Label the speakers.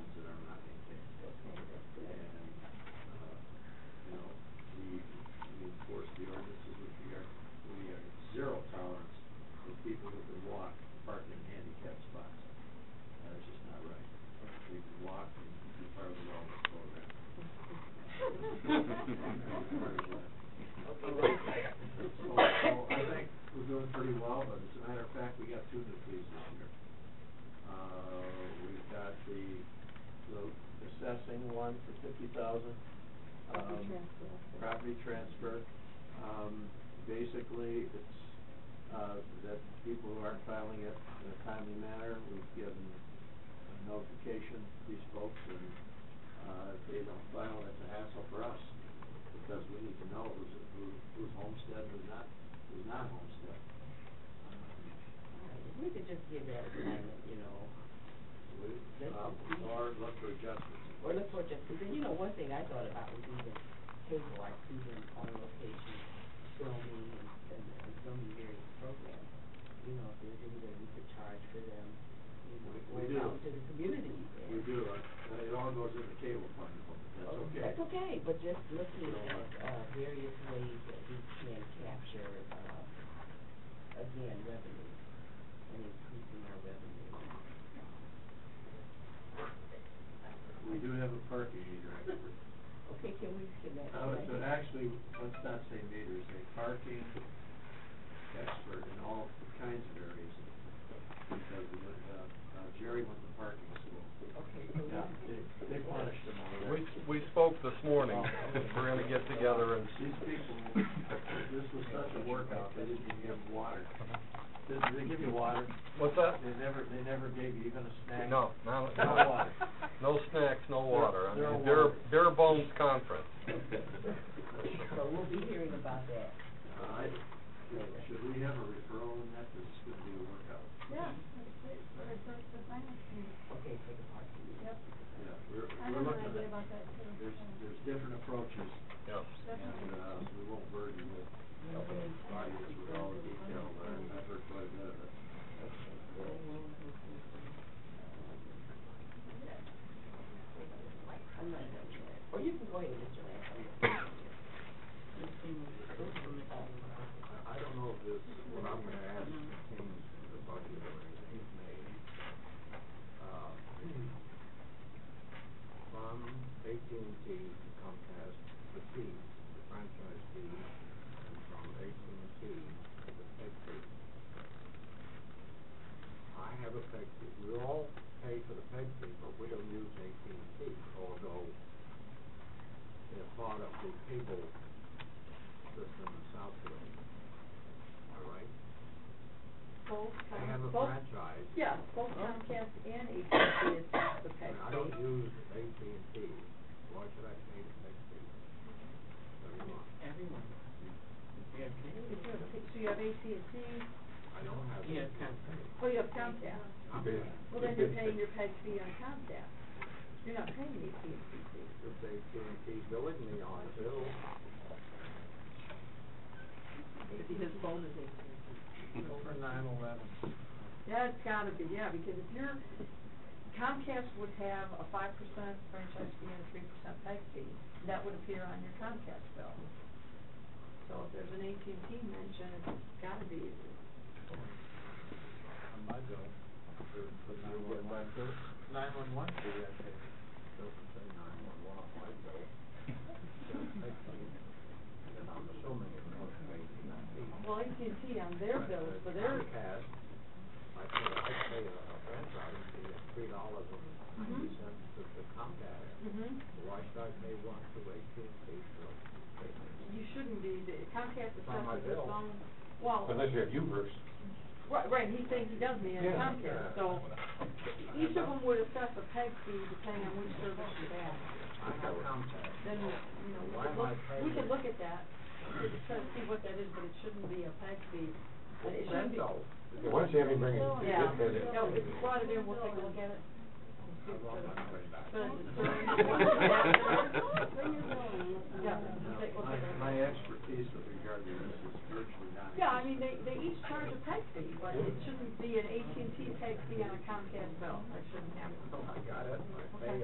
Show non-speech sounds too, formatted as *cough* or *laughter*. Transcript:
Speaker 1: uh, lot and be part of the wellness program. So, so I think we're doing pretty well, but as a matter of fact, we got two new fees this year. Uh, we've got the, the assessing one for fifty thousand. Um,
Speaker 2: Property transfer.
Speaker 1: Property transfer, um, basically, it's, uh, that people who aren't filing it in a timely manner, we've given a notification to these folks, and, uh, if they don't file, that's a hassle for us, because we need to know who's, who, who's homestead, who's not, who's not Uh, homestead.
Speaker 3: We could just give advertisement, you know,
Speaker 1: We,
Speaker 3: That's
Speaker 1: um,
Speaker 3: the key.
Speaker 1: or look for adjustments.
Speaker 3: or look for just, because you know, one thing I thought about was even cable, like even on location, filming and, and, and filming various programs. You know, if there's any way we could charge for them, you know,
Speaker 1: We- we
Speaker 3: going
Speaker 1: do.
Speaker 3: out to the community. and-
Speaker 1: We do, uh, it all goes in the cable fund, but that's
Speaker 3: Oh,
Speaker 1: okay.
Speaker 3: That's okay, but just looking at, uh, various ways that we can capture, uh, again, revenue, and increasing our revenue.
Speaker 1: We do have a parking meter, actually.
Speaker 3: Okay, can we, can that?
Speaker 1: Uh, so actually, let's not say meters, a parking expert in all kinds of areas. Because we went, uh, uh, Jerry went to parking school.
Speaker 3: Okay, so.
Speaker 1: Yeah, they, they punished him over
Speaker 4: We,
Speaker 1: there.
Speaker 4: we spoke this morning, we're gonna get together and.
Speaker 1: These people, this was such a workout, they didn't even give water. Did did they give you water?
Speaker 4: What's that?
Speaker 1: They never, they never gave you even a snack.
Speaker 4: No, no,
Speaker 1: No
Speaker 4: no,
Speaker 1: water.
Speaker 4: no snacks, no water, I
Speaker 1: Zero
Speaker 4: mean, bare,
Speaker 1: water.
Speaker 4: bare bones
Speaker 1: *laughs*
Speaker 4: conference.
Speaker 3: So we'll be hearing about that.
Speaker 1: Uh, I, should we have a referral in that, this is gonna be a workout.
Speaker 2: Yeah, that's great, for the, the finance committee,
Speaker 3: Okay, for the parking.
Speaker 2: yep.
Speaker 1: Yeah, we're,
Speaker 2: I
Speaker 1: we're
Speaker 2: have an
Speaker 1: looking at.
Speaker 2: idea about that too.
Speaker 1: There's, there's different approaches, and,
Speaker 4: Yes.
Speaker 2: Definitely.
Speaker 1: uh, we won't burden the the audience with all the detail, but I've heard quite a bit of it.
Speaker 3: I'm not done yet. Or you can go ahead, Mr. Lance. I'm-
Speaker 5: I don't know if this, what I'm gonna ask
Speaker 2: Mm-hmm.
Speaker 5: changes to the budget or anything made. Um, From AT&T to Comcast, the fees, the franchise fees, and from AT&T to the peg fee. I have a peg fee, we all pay for the peg fee, but we don't use AT&T, although they're part of the cable system in Southfield. Am I right?
Speaker 2: Both,
Speaker 5: I have a
Speaker 2: both,
Speaker 5: franchise.
Speaker 2: yeah, both Comcast and AT&T is the peg
Speaker 5: And I
Speaker 2: fee.
Speaker 5: don't use AT&T. Why should I pay the next fee? Every month.
Speaker 3: Everyone. Yeah,
Speaker 2: If you have- So you have AT&T,
Speaker 5: I don't have.
Speaker 3: Yeah,
Speaker 5: AT&T.
Speaker 2: oh, you have Comcast,
Speaker 5: I'm in.
Speaker 2: well, then you're paying your peg fee on Comcast, you're not paying the AT&T fee.
Speaker 5: If AT&T billing me on bill.
Speaker 3: His phone is
Speaker 1: Over nine eleven.
Speaker 2: That's gotta be, yeah, because if you're, Comcast would have a five percent franchise fee and a three percent peg fee, that would appear on your Comcast bill. So if there's an AT&T mention, it's gotta be,
Speaker 5: On my bill. Nine one one fee, I pay. Doesn't say nine one one on my bill. Just peg fee. And I'm assuming it must be AT&T.
Speaker 2: well, AT&T on their bills for their,
Speaker 5: Comcast, I pay, I pay a a franchise fee of three dollars and ninety
Speaker 2: Mm-hmm.
Speaker 5: cents to the Comcast.
Speaker 2: hmm
Speaker 5: Why should I pay one to AT&T for?
Speaker 2: you shouldn't be, the Comcast is
Speaker 5: It's on my
Speaker 2: separate, it's
Speaker 5: bill.
Speaker 2: on, well,
Speaker 4: you
Speaker 5: *laughs*
Speaker 4: have Ubers.
Speaker 2: right, right, he's saying he does me on
Speaker 5: Yeah.
Speaker 2: Comcast, so each of them would assess a peg fee depending on which service you have.
Speaker 5: I have Comcast.
Speaker 2: Then, you know, we
Speaker 5: Why
Speaker 2: could
Speaker 5: am
Speaker 2: look,
Speaker 5: I paying
Speaker 2: we could
Speaker 5: it?
Speaker 2: look at that, to try to see what that is, but it shouldn't be a peg fee. And It shouldn't
Speaker 5: Then
Speaker 2: be.
Speaker 5: though.
Speaker 4: Why don't you have him bring
Speaker 2: Yeah, no, if you brought it in, we'll take a look at it.
Speaker 5: I love my money back.
Speaker 2: But it's-
Speaker 1: *laughs*